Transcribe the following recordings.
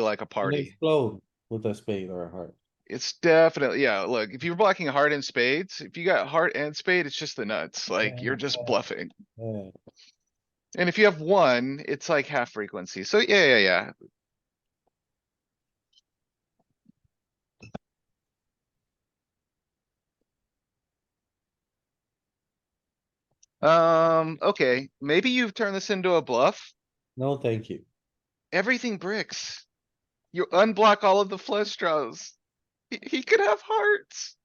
like a They party. Explode with a spade or a heart. It's definitely, yeah, look, if you're blocking heart and spades, if you got heart and spade, it's just the nuts, like you're just Yeah. bluffing. Yeah, And if you have one, it's like half frequency. So yeah, yeah, yeah. Um, okay, maybe you've turned this into a bluff. no, thank you. Everything bricks. You unblock all of the flush draws. He, he could have hearts.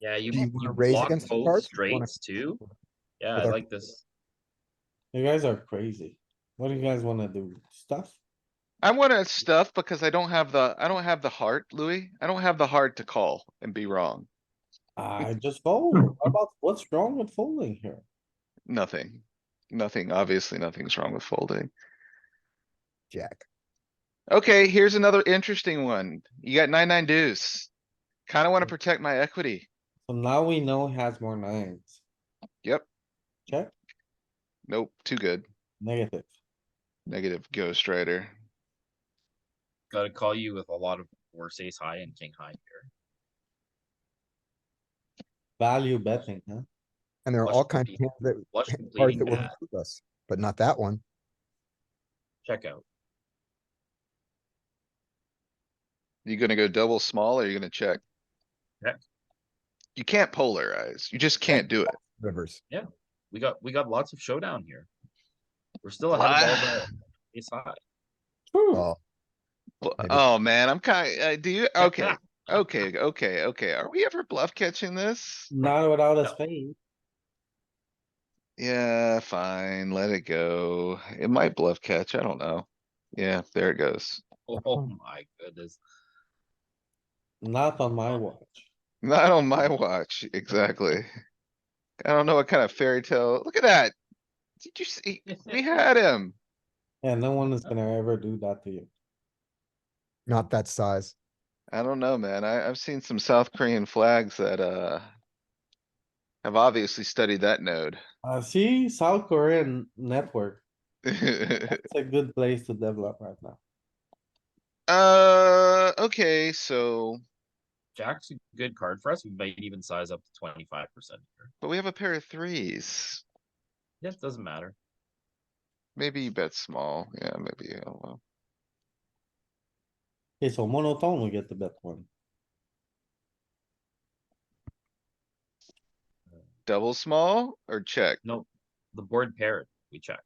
Yeah, you Do you you wanna raise block against the both cards or you wanna- straights too. Yeah, With I our- like this. You guys are crazy. What do you guys wanna do? Stuff? I wanna stuff because I don't have the, I don't have the heart, Louis. I don't have the heart to call and be wrong. I just fold. How About what's wrong with folding here? Nothing. Nothing, obviously nothing's wrong with folding. Jack. Okay, here's another interesting one. You got nine, nine deuce. Kinda wanna protect my equity. So now we know he has more nines. Yep. Check. Nope, too good. Negative. Negative ghost rider. Gotta call you with a lot of worse ace high and king high here. Value betting, huh? And there are Flush all kinds of completing- hands that, Flush cards completing that will that improve us, but not that one. check out. You gonna go double small or you gonna check? Check. You can't polarize. You just can't do it. Rivers. We got we got lots of showdown here. We're still ahead of all Wow. the ace high. Hmm. True. Oh, Bl- Maybe. Oh, man, I'm kinda, uh, do you, okay, okay, okay, okay. Are we ever bluff catching this? Not without a No. spade. Yeah, fine, let it go. It might bluff catch, I don't know. Yeah, there it goes. Oh, oh my goodness. Not on my watch. Not on my watch, exactly. I don't know what kind of fairy tale, look at that. Did you see, we had him. Yeah, no one is gonna ever do that to you. not that size. I don't know, man. I, I've seen some South Korean flags that, uh. Have obviously studied that node. Uh, see, South Korean network. It's a good place to develop right now. Uh, okay, so, Jack's a good card for us. We might even size up to twenty five percent here. but we have a pair of threes. Yeah, it doesn't matter. Maybe you bet small. Yeah, maybe, oh well. Okay, so monotone, we get the bet one. Double small or check? The board paired, we check.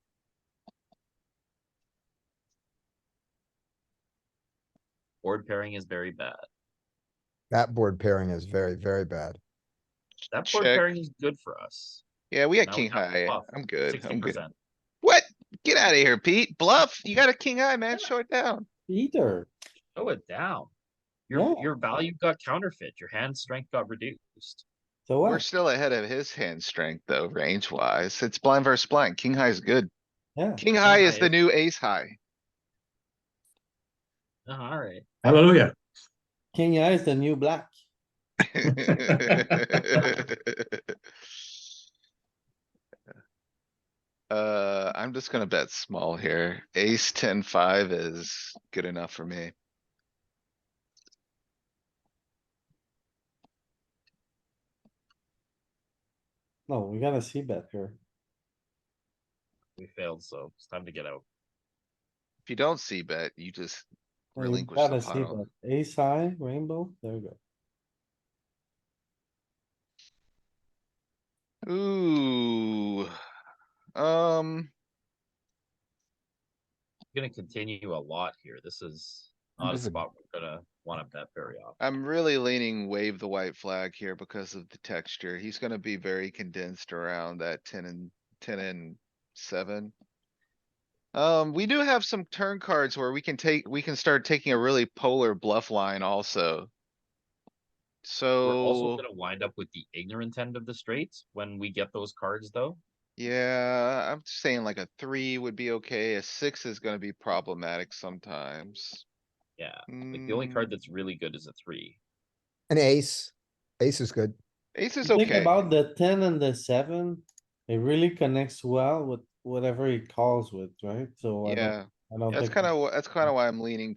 Board pairing is very bad. That board pairing is very, very bad. That board Check. pairing is good for us. Yeah, we got Now we king have to high. bluff. I'm good. Sixty I'm good. percent. What? Get out of here, Pete. Bluff. You got a king high, man. Show it down. Either. Show it down. Your, Yeah. your value got counterfeit, your hand strength got reduced. So We're what? still ahead of his hand strength though, range wise. It's blind versus blind. King high is good. Yeah. King high is high the is- new ace high. Uh, Alright, Hallelujah. King high is the new black. Uh, I'm just gonna bet small here. Ace ten five is good enough for me. No, we gotta see bet here. we failed, so it's time to get out. If you don't see bet, you just We relinquish gotta the see pile. bet. Ace high, rainbow, there we go. Ooh. Um, We're Gonna continue a lot here. This is And not a this is a- spot we're gonna wanna bet very often. I'm really leaning wave the white flag here because of the texture. He's gonna be very condensed around that ten and, ten and seven. Um, we do have some turn cards where we can take, we can start taking a really polar bluff line also. We're also So, gonna wind up with the ignorant end of the straights when we get those cards though. yeah, I'm saying like a three would be okay. A six is gonna be problematic sometimes. Yeah, like the only Hmm. card that's really good is a three. An ace. Ace is good. Ace is Think okay. about the ten and the seven, it really connects well with whatever he calls with, right? So I don't Yeah, I don't That's think- kinda, wh- that's kinda why I'm leaning